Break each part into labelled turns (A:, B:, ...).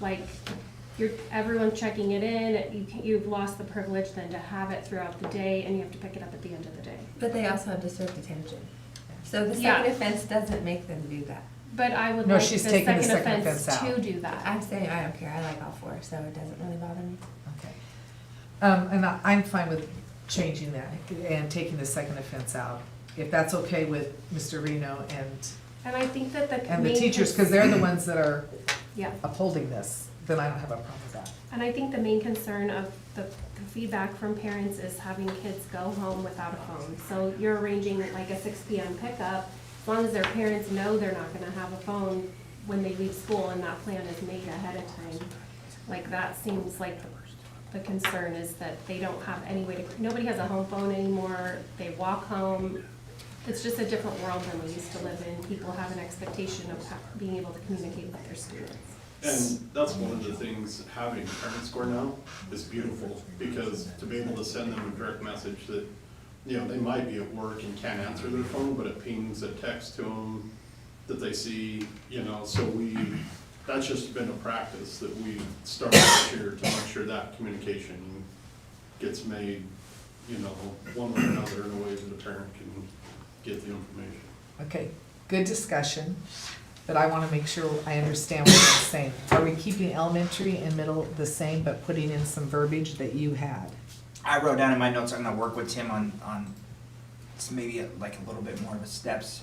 A: like, you're, everyone's checking it in, you, can't- you've lost the privilege then to have it throughout the day, and you have to pick it up at the end of the day.
B: But they also have to serve detention. So the
A: Yeah.
B: second offense doesn't make them do that.
A: But I would
C: No,
A: like the
C: she's taking
A: second
C: the second
A: offense
C: offense out.
A: to do that.
B: I'm saying I don't care, I like all four, so it doesn't really bother me.
C: Okay. Um, and I, I'm fine with changing that and taking the second offense out, if that's okay with Mr. Reno and,
A: And I think that the.
C: and the
A: main
C: teachers,
A: cons-
C: because they're the ones that are
A: Yeah,
C: upholding this, then I don't have a problem with that.
A: and I think the main concern of the the feedback from parents is having kids go home without a phone. So you're arranging like a six P M pickup, as long as their parents know they're not gonna have a phone when they leave school and that plan is made ahead of time. Like that seems like the concern is that they don't have any way to, nobody has a home phone anymore, they walk home. It's just a different world than we used to live in. People have an expectation of ha- being able to communicate with their students.
D: And that's one of the things, having parent score now is beautiful, because to be able to send them a direct message that, you know, they might be at work and can't answer their phone, but it pings a text to them that they see, you know, so we, that's just been a practice that we started this year to make sure that communication gets made, you know, one way or another in a way that a parent can get the information.
C: Okay, good discussion, but I want to make sure I understand what you're saying. Are we keeping elementary and middle the same, but putting in some verbiage that you had?
E: I wrote down in my notes, I'm gonna work with Tim on, on, s- maybe a- like a little bit more of a steps.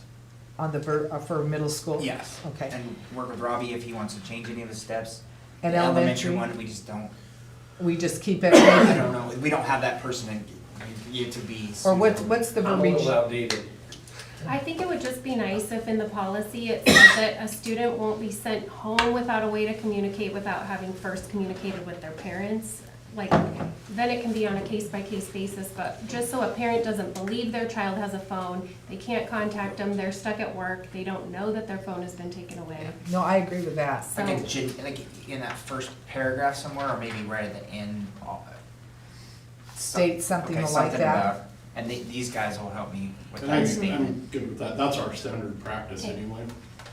C: On the ver, uh, for middle school?
E: Yes.
C: Okay.
E: And work with Robbie if he wants to change any of the steps.
C: And
E: The
C: elementary,
E: one, we just don't,
C: we just keep it,
E: I don't know, we don't have that person in, yet to be.
C: or what's, what's the
F: I'm a
C: verbiage?
F: little outdated.
A: I think it would just be nice if in the policy it said that a student won't be sent home without a way to communicate without having first communicated with their parents. Like, then it can be on a case-by-case basis, but just so a parent doesn't believe their child has a phone, they can't contact them, they're stuck at work, they don't know that their phone has been taken away.
C: No, I agree with that.
A: So,
E: Like a gen, like in that first paragraph somewhere, or maybe right at the end. I'll-
C: State something
E: Okay,
C: like
E: something
C: that.
E: about- And they, these guys will help me with
D: And I,
E: that
D: I'm
E: statement.
D: good with that, that's our standard practice
A: Okay.
D: anyway,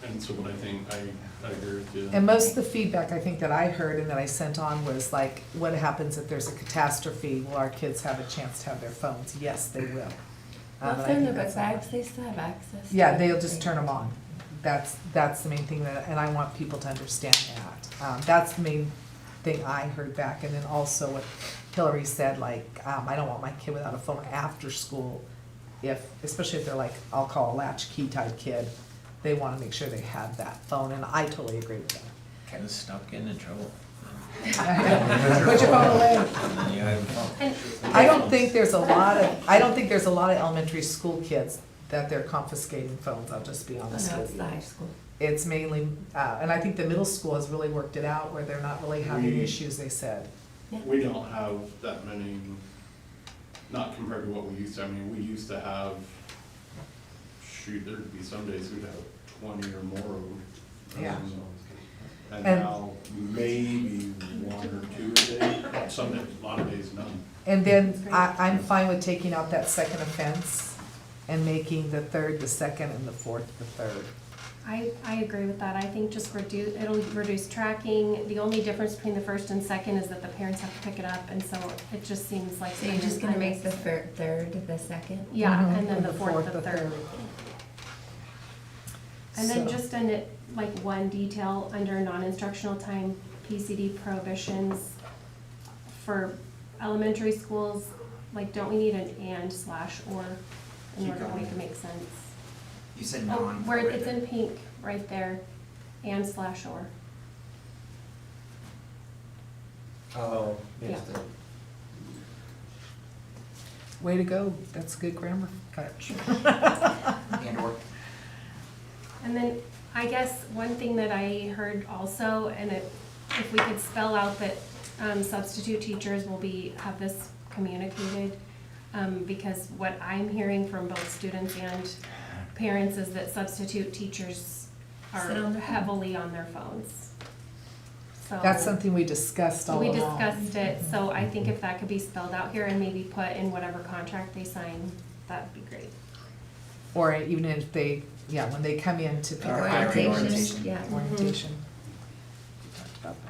D: and so what I think, I, I agree with you.
C: And most of the feedback I think that I heard and that I sent on was like, what happens if there's a catastrophe? Will our kids have a chance to have their phones? Yes, they will. Um,
B: Well,
C: and I
B: some
C: think
B: of
C: that's-
B: us, I actually still have access. to
C: Yeah,
B: it.
C: they'll just turn them on. That's, that's the main thing that, and I want people to understand that. Um, that's the main thing I heard back, and then also what Hillary said, like, um, I don't want my kid without a phone after school. If, especially if they're like, I'll call a latchkey type kid, they wanna make sure they have that phone, and I totally agree with that.
E: Kind of stuck in trouble.
C: Put your phone away.
E: And then you have a phone.
A: And
C: I don't think there's a lot of, I don't think there's a lot of elementary school kids that they're confiscating phones, I'll just be
B: Oh,
C: honest
B: No,
C: with
B: it's
C: you.
B: the high school.
C: It's mainly, uh, and I think the middle school has really worked it out where they're not really having
D: We-
C: issues, they said.
D: We don't have that many, not compared to what we used to, I mean, we used to have, shoot, there'd be some days we'd have twenty or more of them.
C: Yeah.
D: Um, And
C: And-
D: now, maybe one or two a day, some, days- a lot of days, none.
C: And then I, I'm fine with taking out that second offense and making the third the second and the fourth the third.
A: I, I agree with that. I think just reduce, it'll reduce tracking. The only difference between the first and second is that the parents have to pick it up, and so it just seems like.
B: So you're just gonna make the fir- third, the second?
A: Yeah,
C: Mhm.
A: and then the fourth, the third. And then
C: So-
A: just in it, like one detail under non-instructional time, PCD prohibitions for elementary schools, like don't we need an and slash or in
E: Keep
A: order to
E: going.
A: make it make sense?
E: You said
A: Oh,
E: non.
A: Where it's in pink, right there, and slash or.
F: Oh,
A: Yeah.
F: yes, the-
C: Way to go, that's good grammar, coach.
E: And or.
A: And then, I guess, one thing that I heard also, and it, if we could spell out that um, substitute teachers will be, have this communicated, um, because what I'm hearing from both students and parents is that substitute teachers are
B: Sit on their phone.
A: heavily on their phones. So.
C: That's something we discussed all
A: We
C: along.
A: discussed it, so I think if that could be spelled out here and maybe put in whatever contract they sign, that'd be great.
C: Or even if they, yeah, when they come in to pick up
E: Or
C: their
E: hiring
C: papers.
B: Orientation,
E: orientation.
B: yeah.
C: Orientation.